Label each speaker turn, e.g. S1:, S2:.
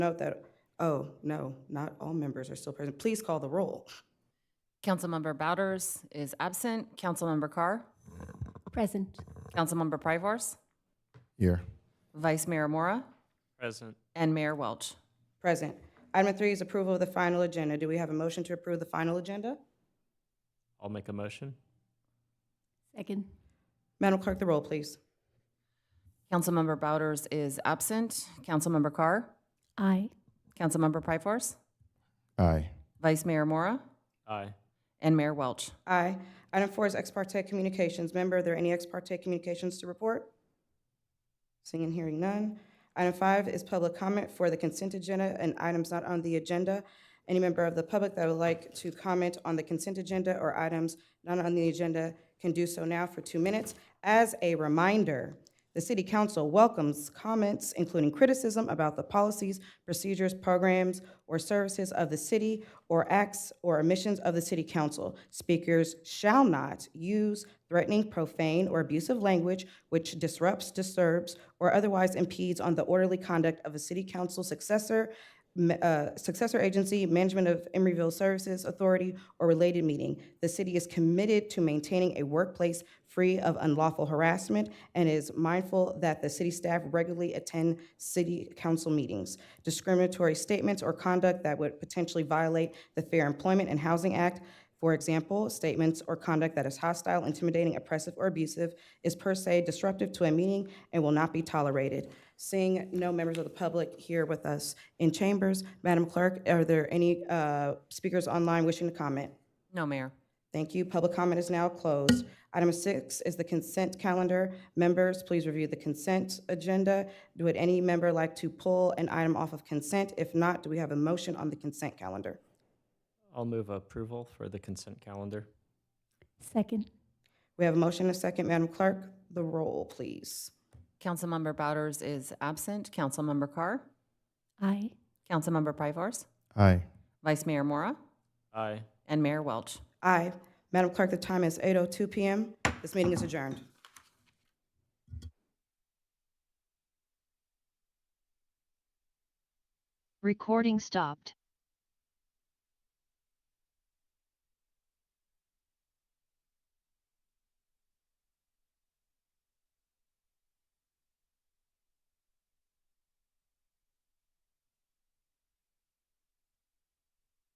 S1: Note that, oh, no, not all members are still present. Please call the roll.
S2: Councilmember Bouders is absent. Councilmember Carr?
S3: Present.
S2: Councilmember Pryforce?
S4: Here.
S2: Vice Mayor Mora?
S5: Present.
S2: And Mayor Welch?
S1: Present. Item three is approval of the final agenda. Do we have a motion to approve the final agenda?
S5: I'll make a motion.
S3: Second.
S1: Madam Clerk, the roll, please.
S2: Councilmember Bouders is absent. Councilmember Carr?
S3: Aye.
S2: Councilmember Pryforce?
S4: Aye.
S2: Vice Mayor Mora?
S5: Aye.
S2: And Mayor Welch?
S1: Aye. Item four is ex parte communications. Member, are there any ex parte communications to report? Seeing and hearing none. Item five is public comment for the consent agenda and items not on the agenda. Any member of the public that would like to comment on the consent agenda or items not on the agenda can do so now for two minutes. As a reminder, the City Council welcomes comments, including criticism about the policies, procedures, programs, or services of the city or acts or omissions of the City Council. Speakers shall not use threatening, profane, or abusive language which disrupts, disturbs, or otherwise impedes on the orderly conduct of a City Council successor ma- uh, successor agency, management of Emeryville Services Authority, or related meeting. The city is committed to maintaining a workplace free of unlawful harassment and is mindful that the city staff regularly attend city council meetings. Discriminatory statements or conduct that would potentially violate the Fair Employment and Housing Act for example, statements or conduct that is hostile, intimidating, oppressive, or abusive is per se disruptive to a meeting and will not be tolerated. Seeing no members of the public here with us in chambers, Madam Clerk, are there any uh, speakers online wishing to comment?
S2: No, Mayor.
S1: Thank you. Public comment is now closed. Item six is the consent calendar. Members, please review the consent agenda. Would any member like to pull an item off of consent? If not, do we have a motion on the consent calendar?
S5: I'll move approval for the consent calendar.
S3: Second.
S1: We have a motion and a second. Madam Clerk, the roll, please.
S2: Councilmember Bouders is absent. Councilmember Carr?
S3: Aye.
S2: Councilmember Pryforce?
S4: Aye.
S2: Vice Mayor Mora?
S5: Aye.
S2: And Mayor Welch?
S1: Aye. Madam Clerk, the time is 8:02 PM. This meeting is adjourned.
S6: Recording stopped.